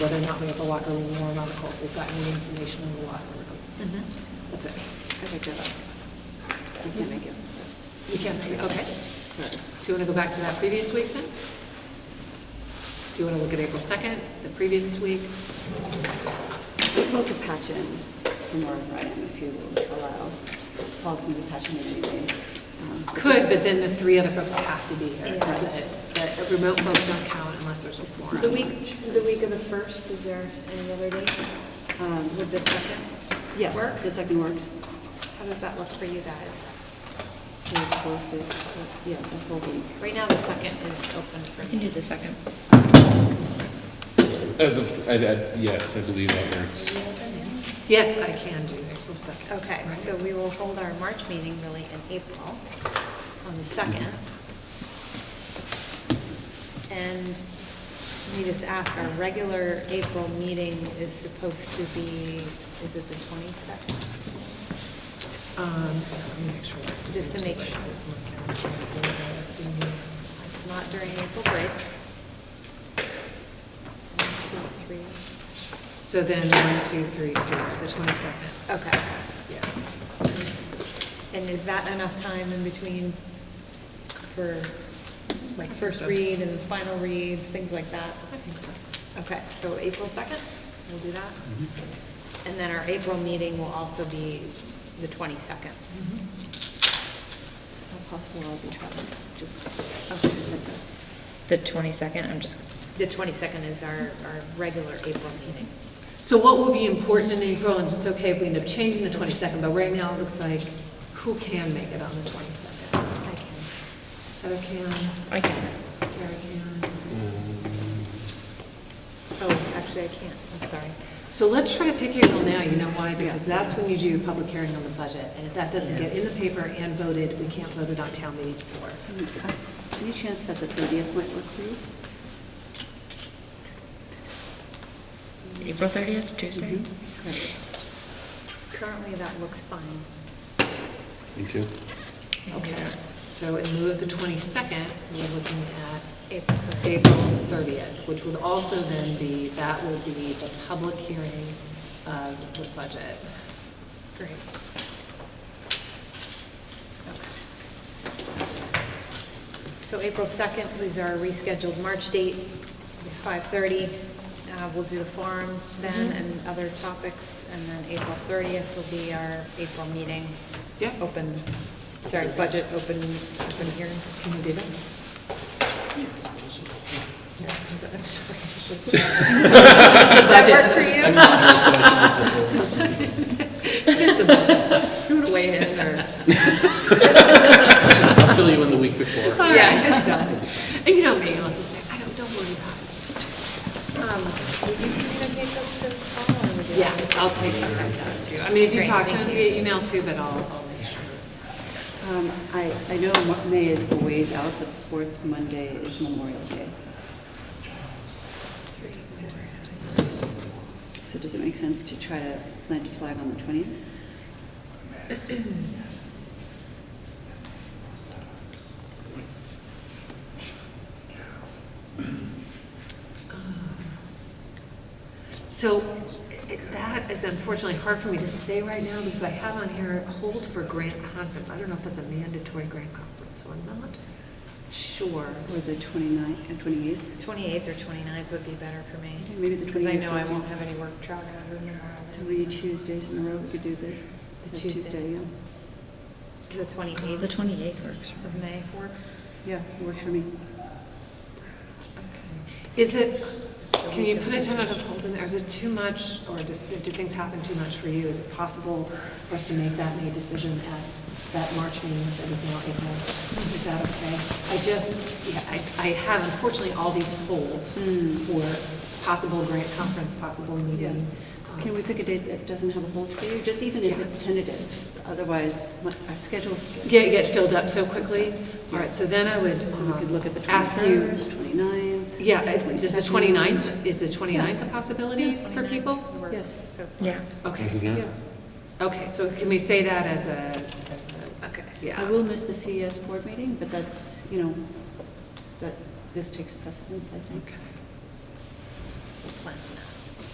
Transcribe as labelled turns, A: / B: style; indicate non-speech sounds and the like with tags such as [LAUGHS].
A: whether or not we have a locker room warrant article, if we've gotten any information on the locker room.
B: Mm-hmm.
A: That's it.
C: Okay, good. You can make it first.
A: You can't, okay. So you want to go back to that previous week then? Do you want to look at April 2nd, the previous week?
C: You can also patch in the North Reading if you allow Paul's going to patch in anyways. um,
A: Could, but then the three other folks have to be here.
C: Yeah.
A: because The the remote folks don't count unless there's a forum.
B: The week, the week of the first, is there any other date?
C: Um,
B: Would the second?
C: Yes,
B: Work?
C: the second works.
B: How does that look for you guys?
C: The whole fif- Yeah, the whole week.
B: Right now, the second is open for
D: can do
B: me.
D: the second.
E: As of, I, I, yes, I believe that works.
A: Yes, I can do April 2nd.
B: Okay, so we will hold our March meeting really in April, on the second. And let me just ask, our regular April meeting is supposed to be, is it the twenty-second?
A: Um, let me make sure this is-
B: Just to make-
A: this one can be done. Let's see.
B: It's not during April break. One, two, three.
A: So then, one, two, three, four, the 22nd.
B: Okay.
A: Yeah.
B: And is that enough time in between for, like, first read and final reads, things like that?
A: I think so.
B: Okay, so April 2nd, we'll do that. And then our April meeting will also be the 22nd.
C: It's not possible I'll be traveling, just,
B: Okay.
C: that's it.
D: The 22nd, I'm just,
B: The 22nd is our, our regular April meeting.
A: So what will be important in April, and it's okay if we end up changing the 22nd, but right now it looks like who can make it on the 22nd?
B: I can.
A: Heather can,
D: I can,
A: Tara can.
B: Oh, actually, I can't, I'm sorry.
A: So let's try to pick April now, you know why? Because that's when you do your public hearing on the budget. And if that doesn't get in the paper and voted, we can't vote it on town meeting floor.
C: Okay. Any chance that the 30th might work for you?
D: April 30th, Tuesday?
C: Correct.
B: Currently, that looks fine.
E: Me [LAUGHS] too.
D: Mm-hmm.
A: Okay. So in lieu of the 22nd, we're looking
B: April
A: at
B: 3rd.
A: April 30th, which would also then be, that will be the public hearing of the budget.
B: Great. Okay. So April 2nd is our rescheduled March date, 5:30. Uh, We'll do the forum then and other topics, and then April 30th will be our April meeting.
A: Yep.
B: Open, sorry, budget, open, open hearing.
A: Can you do that?
B: Does that work for you?
A: Just the budget. You want to weigh in or?
F: I'll fill you in the week before.
A: All right, just done. And you know me, I'll just say, I don't, don't worry about it. Just do it.
B: Um, Will you communicate those to Paul? or would you-
A: Yeah, I'll take that back down too. I mean, if you
B: Great,
A: talk to
B: thank
A: him
B: you.
A: via email too, but I'll, I'll make sure.
C: Um, I, I know Mo- May is a ways out, but the fourth Monday is Memorial Day. So does it make sense to try to plant a flag on the 20th?
A: So it- that is unfortunately hard for me to say right now because I have on here hold for grant conference. I don't know if that's a mandatory grant conference or not. Sure.
C: Or the uh, 29th and 28th?
B: 28th or 29th would be better for me.
C: Yeah, maybe the
B: Because I
C: 28th
B: know I
C: would
B: won't
C: be-
B: have any work travel tomorrow.
C: Three Tuesdays in a row, we could do the.
B: The Tuesday.
C: yeah.
B: Is the
D: The
B: 28th
D: 28th works.
B: of May work?
C: Yeah, works for me.
A: Is it, can you put a tentative hold in there? Is it too much or does, do things happen too much for you? Is it possible for us to make that May decision at that March meeting that is now April? Is that okay? I just, yeah, I, I have unfortunately all these holds
C: Hmm.
A: for possible grant conference, possible meeting. Um,
C: Can we pick a date that doesn't have a hold for you, just even if
A: Yeah.
C: it's tentative? Otherwise, my- our schedule's.
A: Get, get filled up so quickly? All right, so then I would
C: So we could look at the
A: um, ask you.
C: 21st, 29th.
A: Yeah, it- does the 29th, is the 29th a
B: Yes,
A: possibility for
B: 29th
A: people?
B: works
C: Yes.
B: so far.
D: Yeah.
A: Okay.
E: As of now?
A: Okay, so can we say that as a, as
B: Okay.
A: a,
C: I
A: yeah,
C: will miss the CES board meeting, but that's, you know, that, this takes precedence, I think.
A: okay.
B: plan.